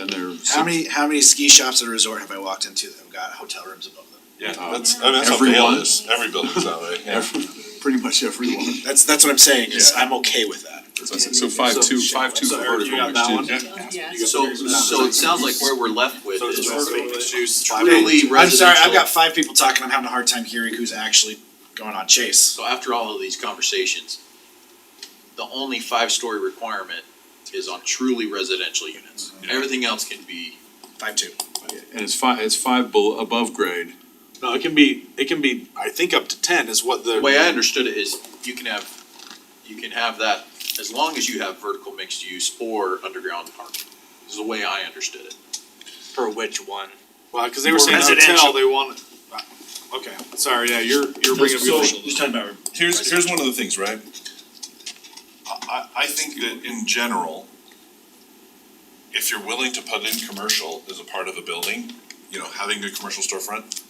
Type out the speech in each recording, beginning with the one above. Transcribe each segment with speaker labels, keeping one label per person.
Speaker 1: and they're.
Speaker 2: How many, how many ski shops at a resort have I walked into that have got hotel rooms above them?
Speaker 3: Yeah,
Speaker 1: Uh,
Speaker 3: that's, I mean, that's how Vail
Speaker 1: everyone.
Speaker 3: is, every building's that way, yeah.
Speaker 1: Pretty much everyone.
Speaker 2: That's, that's what I'm saying, is
Speaker 1: Yeah.
Speaker 2: I'm okay with that.
Speaker 1: So five two, five two for
Speaker 2: So, Eric, you
Speaker 1: vertical
Speaker 2: got that one?
Speaker 1: mixed use.
Speaker 4: Yeah.
Speaker 5: So, so it sounds like where we're left with
Speaker 2: So it's
Speaker 5: is
Speaker 2: vertical
Speaker 5: truly
Speaker 2: mixed
Speaker 5: residential.
Speaker 2: I'm sorry, I've got five people talking, I'm having a hard time hearing who's actually going on Chase.
Speaker 5: So after all of these conversations, the only five-story requirement is on truly residential units.
Speaker 3: Yeah.
Speaker 5: Everything else can be,
Speaker 2: Five two.
Speaker 1: And it's five, it's five bel- above grade.
Speaker 6: No, it can be, it can be, I think up to ten is what
Speaker 5: the way
Speaker 2: Mm-hmm.
Speaker 5: I understood it is you can have, you can have that as long as you have vertical mixed use or underground parking. Is the way I understood it.
Speaker 7: For which one?
Speaker 6: Well, cause
Speaker 7: Or residential.
Speaker 6: they want, okay, sorry, yeah, you're, you're bringing.
Speaker 2: So, who's talking about
Speaker 3: Here's, here's one of the things, right? I, I, I think that in general, if you're willing to put in commercial as a part of a building, you know, having a commercial storefront,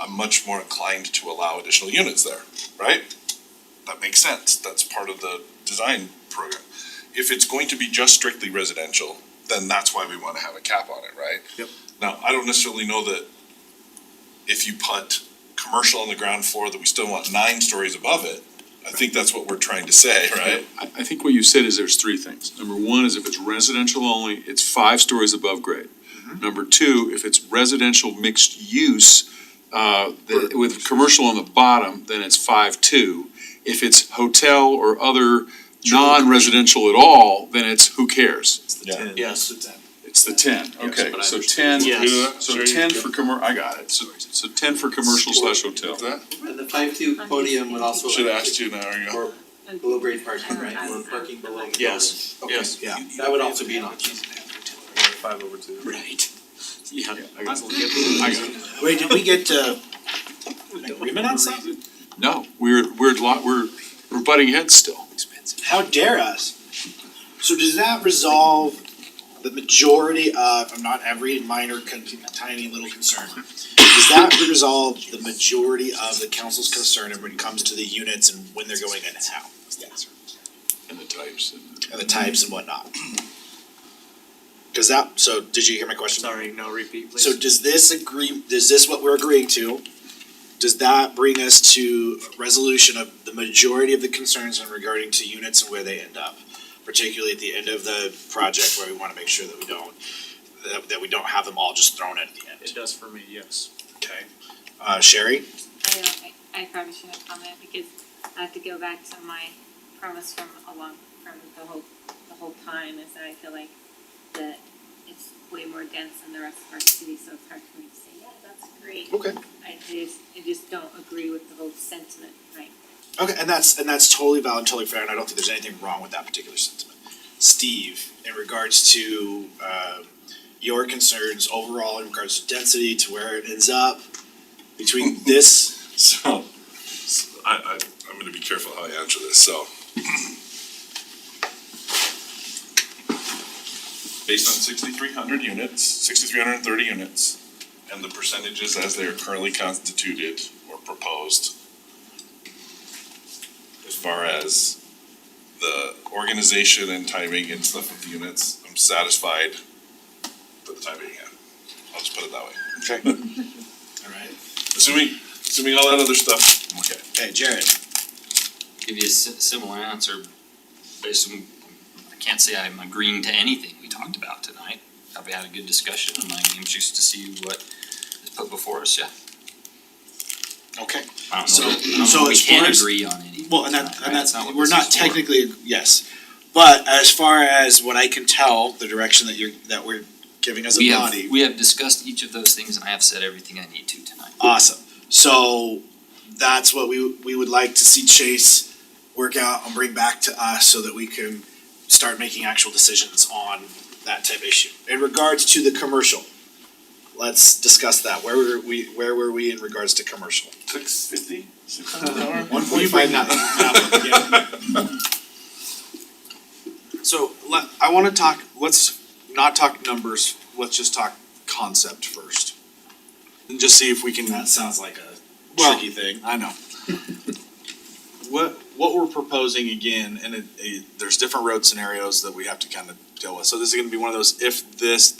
Speaker 3: I'm much more inclined to allow additional units there, right? That makes sense, that's part of the design program. If it's going to be just strictly residential, then that's why we wanna have a cap on it, right?
Speaker 2: Yep.
Speaker 3: Now, I don't necessarily know that if you put commercial on the ground floor, that we still want nine stories above it, I think that's what we're trying to say, right?
Speaker 1: I, I think what you said is there's three things. Number one is if it's residential only, it's five stories above grade.
Speaker 2: Mm-hmm.
Speaker 1: Number two, if it's residential mixed use, uh, the- with commercial on the bottom, then it's five two. If it's hotel or other non-residential at all, then it's who cares?
Speaker 3: Yeah.
Speaker 2: Yes. It's ten.
Speaker 1: It's the ten, okay,
Speaker 5: but I
Speaker 1: so ten,
Speaker 5: understand.
Speaker 7: Yes.
Speaker 1: so ten for commer, I got it, so, so ten for commercial slash hotel.
Speaker 8: And the five two podium would also.
Speaker 3: Should have asked you an hour ago.
Speaker 8: Or below grade parking, right, or parking below. the
Speaker 7: Yes,
Speaker 8: building.
Speaker 7: yes.
Speaker 2: Yeah.
Speaker 8: Okay, That would also be an option.
Speaker 7: Five over two. Right. Yeah.
Speaker 1: I got it. I got it.
Speaker 2: Wait, did we get, uh, an agreement on something?
Speaker 1: No, we're, we're lot, we're, we're butting heads still.
Speaker 2: How dare us? So does that resolve the majority of, I'm not every minor con- tiny little concern. Does that resolve the majority of the council's concern when it comes to the units and when they're going in and how?
Speaker 1: And the types and.
Speaker 2: And the types and whatnot? Does that, so did you hear my question?
Speaker 7: Sorry, no repeat, please.
Speaker 2: So does this agree, is this what we're agreeing to? Does that bring us to resolution of the majority of the concerns in regarding to units and where they end up? Particularly at the end of the project where we wanna make sure that we don't, that, that we don't have them all just thrown at the end,
Speaker 7: It does for me, yes.
Speaker 2: okay? Uh, Sherry?
Speaker 4: I don't, I, I probably shouldn't comment because I have to go back to my premise from a long, from the whole, the whole time is that I feel like that it's way more dense than the rest of our city, so it's hard for me to say, yeah, that's great.
Speaker 2: Okay.
Speaker 4: I just, I just don't agree with the whole sentiment, right?
Speaker 2: Okay, and that's, and that's totally valid, and totally fair, and I don't think there's anything wrong with that particular sentiment. Steve, in regards to, um, your concerns overall in regards to density, to where it ends up, between this
Speaker 3: So, s- I, I, I'm gonna be careful how I answer this, so. Based on sixty-three hundred units, sixty-three hundred and thirty units, and the percentages as they are currently constituted or proposed. As far as the organization and timing and stuff of the units, I'm satisfied for the time being, yeah. I'll just put it that way.
Speaker 2: Alright,
Speaker 3: Assuming, assuming all that other stuff, I'm okay.
Speaker 2: okay, Jared,
Speaker 9: give you a si- similar answer, based on, I can't say I'm agreeing to anything we talked about tonight. Thought we had a good discussion, and I'm anxious to see what is put before us, yeah.
Speaker 2: okay,
Speaker 9: I don't
Speaker 2: So-
Speaker 9: know, that- I don't
Speaker 2: so
Speaker 9: know if
Speaker 2: as
Speaker 9: we can
Speaker 2: far as-
Speaker 9: agree on anything
Speaker 2: well, and that,
Speaker 9: tonight, right?
Speaker 2: and
Speaker 9: Uh, That's
Speaker 2: that's,
Speaker 9: what
Speaker 2: we're
Speaker 9: this
Speaker 2: not
Speaker 9: is for.
Speaker 2: technically, yes. But as far as what I can tell, the direction that you're, that we're giving as a
Speaker 9: We have,
Speaker 2: body,
Speaker 9: we have discussed each of those things, and I have said everything I need to tonight.
Speaker 2: awesome. So, that's what we, we would like to see Chase work out and bring back to us so that we can start making actual decisions on that type of issue. In regards to the commercial, let's discuss that, where were we, where were we in regards to commercial?
Speaker 3: Six fifty?
Speaker 2: One point five nine.
Speaker 6: So let, I wanna talk, let's not talk numbers, let's just talk concept first. And just see if we can.
Speaker 2: That sounds like a
Speaker 6: Well,
Speaker 2: tricky thing.
Speaker 6: I know. What, what we're proposing again, and it, it, there's different road scenarios that we have to kind of deal with, so this is gonna be one of those, if this,